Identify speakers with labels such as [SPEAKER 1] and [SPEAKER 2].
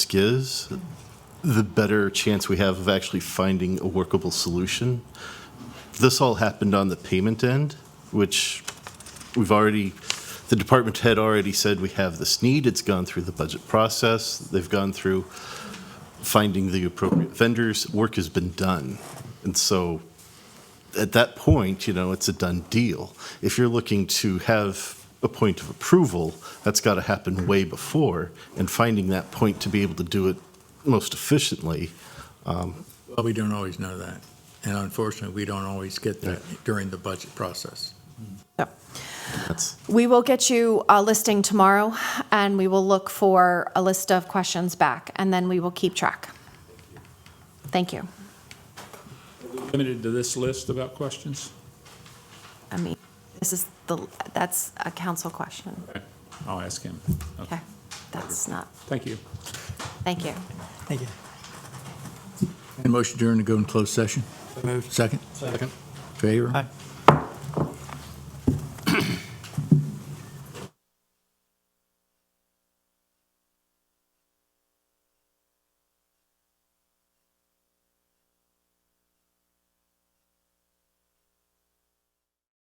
[SPEAKER 1] risk is, the better chance we have of actually finding a workable solution. This all happened on the payment end, which we've already, the department had already said we have this need. It's gone through the budget process. They've gone through finding the appropriate vendors. Work has been done. And so at that point, you know, it's a done deal. If you're looking to have a point of approval, that's got to happen way before, and finding that point to be able to do it most efficiently.
[SPEAKER 2] But we don't always know that. And unfortunately, we don't always get that during the budget process.
[SPEAKER 3] So,
[SPEAKER 1] That's,
[SPEAKER 3] We will get you a listing tomorrow, and we will look for a list of questions back, and then we will keep track. Thank you.
[SPEAKER 4] Limited to this list about questions?
[SPEAKER 3] I mean, this is the, that's a council question.
[SPEAKER 4] Okay, I'll ask him.
[SPEAKER 3] Okay, that's not,
[SPEAKER 4] Thank you.
[SPEAKER 3] thank you.
[SPEAKER 5] Thank you.
[SPEAKER 2] And motion during to go in closed session?
[SPEAKER 5] moved.
[SPEAKER 2] Second?
[SPEAKER 5] Second.
[SPEAKER 2] Favor?
[SPEAKER 5] Aye.